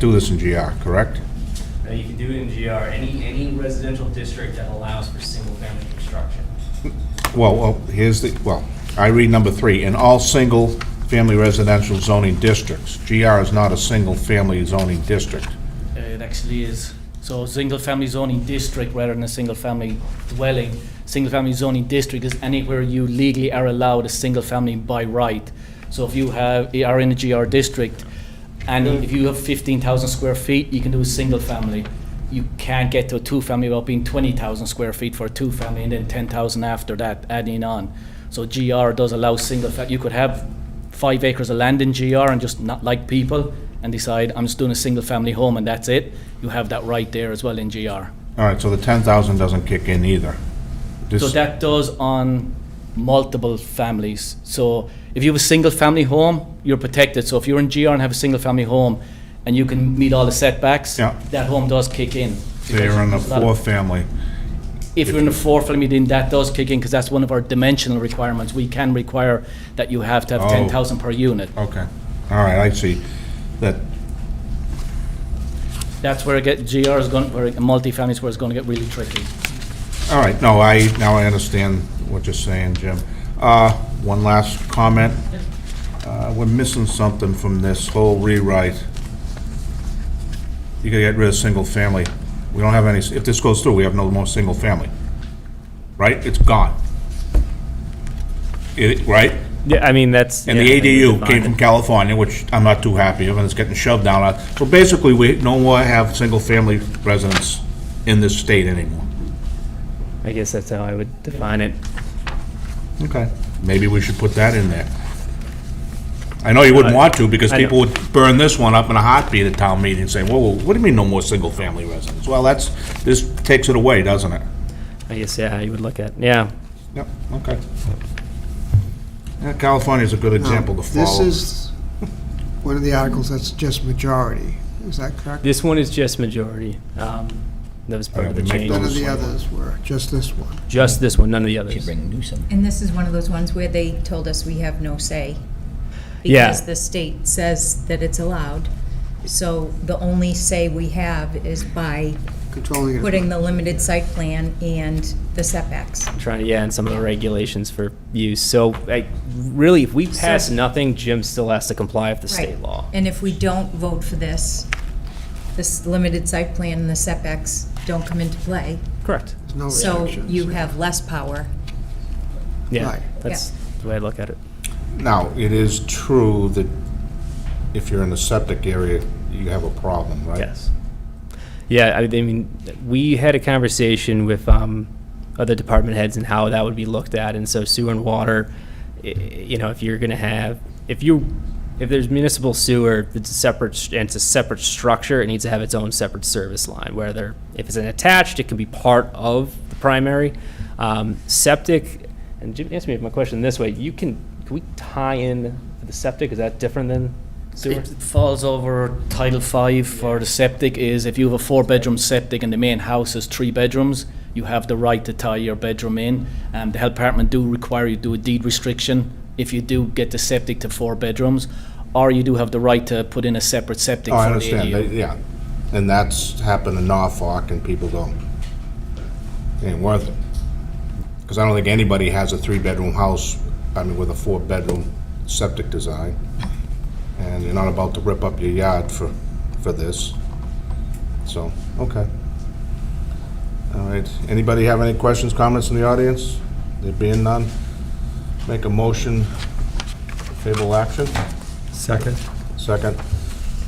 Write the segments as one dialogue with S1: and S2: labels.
S1: do this in GR, correct?
S2: Now, you can do it in GR, any, any residential district that allows for single-family construction.
S1: Well, well, here's the, well, I read number three, in all single-family residential zoning districts. GR is not a single-family zoning district.
S3: Uh, It actually is. So single-family zoning district rather than a single-family dwelling. Single-family zoning district is anywhere you legally are allowed a single-family by right. So if you have, you are in a GR district, and if you have fifteen thousand square feet, you can do a single-family. You can't get to a two-family without being twenty thousand square feet for a two-family, and then ten thousand after that, adding on. So GR does allow single, fa- you could have five acres of land in GR and just not like people and decide, I'm just doing a single family home and that's it, you have that right there as well in GR.
S1: All right, so the 10,000 doesn't kick in either.
S3: So
S1: This-
S3: that does on multiple families. So if you have a single family home, you're protected. So if you're in GR and have a single family home and you can meet all the setbacks,
S1: Yeah.
S3: that home does kick in.
S1: They're in the
S3: There's a lot of-
S1: fourth family.
S3: If you're in the fourth family, then that does kick in because that's one of our dimensional requirements. We can require that you have to have
S1: Oh.
S3: 10,000 per unit.
S1: Okay, all right, I see. That,
S3: That's where it get, GR is going, where it- multifamily is where it's going to get really tricky.
S1: all right, no, I, now I understand what you're saying, Jim. Uh, One last comment. Uh, We're missing something from this whole rewrite. You gotta get rid of single-family. We don't have any, if this goes through, we have no more single-family. Right? It's gone. It, right?
S4: Yeah, I mean, that's.
S1: And
S4: yeah,
S1: the
S4: I think we
S1: ADU came
S4: defined
S1: from
S4: it.
S1: California, which I'm not too happy of, and it's getting shoved down our, so basically, we no more have single-family residents in this state anymore.
S4: I guess that's how I would define it.
S1: Okay. Maybe we should put that in there. I know you wouldn't want to, because
S4: I know.
S1: people would burn this one up in a heartbeat at town meeting, saying, whoa, whoa, what do you mean no more single-family residents? Well, that's, this takes it away, doesn't it?
S4: I guess, yeah, you would look at, yeah.
S1: Yep, okay. Yeah, California's a good example to follow.
S5: Um, This is one of the articles that's just majority, is that correct?
S4: This one is just majority. Um, That was part
S1: Alright,
S4: of the
S1: we make
S4: change.
S5: None of
S1: those-
S5: the others were, just this one.
S4: Just this one, none of the others.
S6: And this is one of those ones where they told us we have no say.
S4: Yeah.
S6: Because the state says that it's allowed. So the only say we have is by
S5: Controlling it.
S6: putting the limited site plan and the setbacks.
S4: Trying, yeah, and some of the regulations for use. So, like, really, if we pass nothing, Jim still has to comply with the state
S6: Right.
S4: law.
S6: And if we don't vote for this, this limited site plan and the setbacks don't come into play.
S4: Correct.
S5: There's no
S6: So
S5: restrictions.
S6: you have less power.
S4: Yeah,
S5: Right.
S4: that's the way I look at it.
S1: Now, it is true that if you're in the septic area, you have a problem, right?
S4: Yes. Yeah, I I mean, we had a conversation with um, other department heads and how that would be looked at, and so sewer and water, i- you know, if you're gonna have, if you, if there's municipal sewer, it's a separate, st- and it's a separate structure, it needs to have its own separate service line, whether, if it's an attached, it can be part of the primary. Um, Septic, and Jim, answer me my question this way, you can, can we tie in the septic, is that different than sewer?
S3: It falls over Title Five for the septic is if you have a four-bedroom septic and the main house is three bedrooms, you have the right to tie your bedroom in. Um, the health department do require you do a deed restriction if you do get the septic to four bedrooms, or you do have the right to put in a separate septic
S1: Oh, I
S3: for the
S1: understand,
S3: ADU.
S1: They- yeah. And that's happened in Norfolk, and people go, "It ain't worth it. Because I don't think anybody has a three-bedroom house, I mean, with a four-bedroom septic design. And you're not about to rip up your yard for, for this. So, okay. All right, anybody have any questions, comments in the audience? There being none, make a motion, favorable action?
S7: Second.
S1: Second.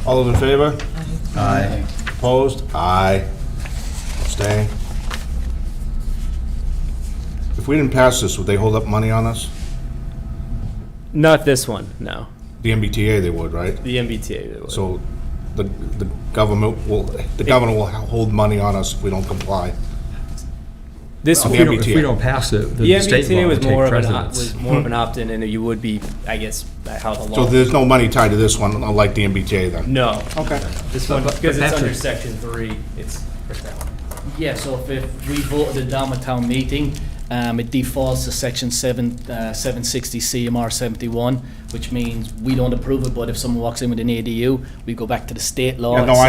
S1: All those in favor?
S7: Aye.
S1: Opposed? Aye. Abstain. If we didn't pass this, would they hold up money on us?
S4: Not this one, no.
S1: The MBTA they would, right?
S4: The MBTA. that would.
S1: So the, the government will, the governor will hold money on us if we don't comply.
S4: This
S1: Well,
S4: one,
S1: the
S7: If we don't- if
S1: MBTA.
S7: we don't pass it,
S4: the
S7: then the state
S4: MBTA
S7: law will
S4: was more
S7: take
S4: of an, op-
S7: precedence. Hmm.
S4: was more of an opt-in, and you would be, I guess, that how the
S1: So
S4: law.
S1: there's no money tied to this one, unlike the MBTA then?
S4: No,
S1: Okay.
S4: this one,
S7: But- but
S4: because it's under
S7: Patrick-
S4: section three, it's for that one.
S3: Yeah, so if, if we voted it down at town meeting, um, it defaults to section seven, uh, seven sixty CMR seventy-one, which means we don't approve it, but if someone walks in with an ADU, we go back to the state law.
S1: Yeah, no,
S3: at
S1: I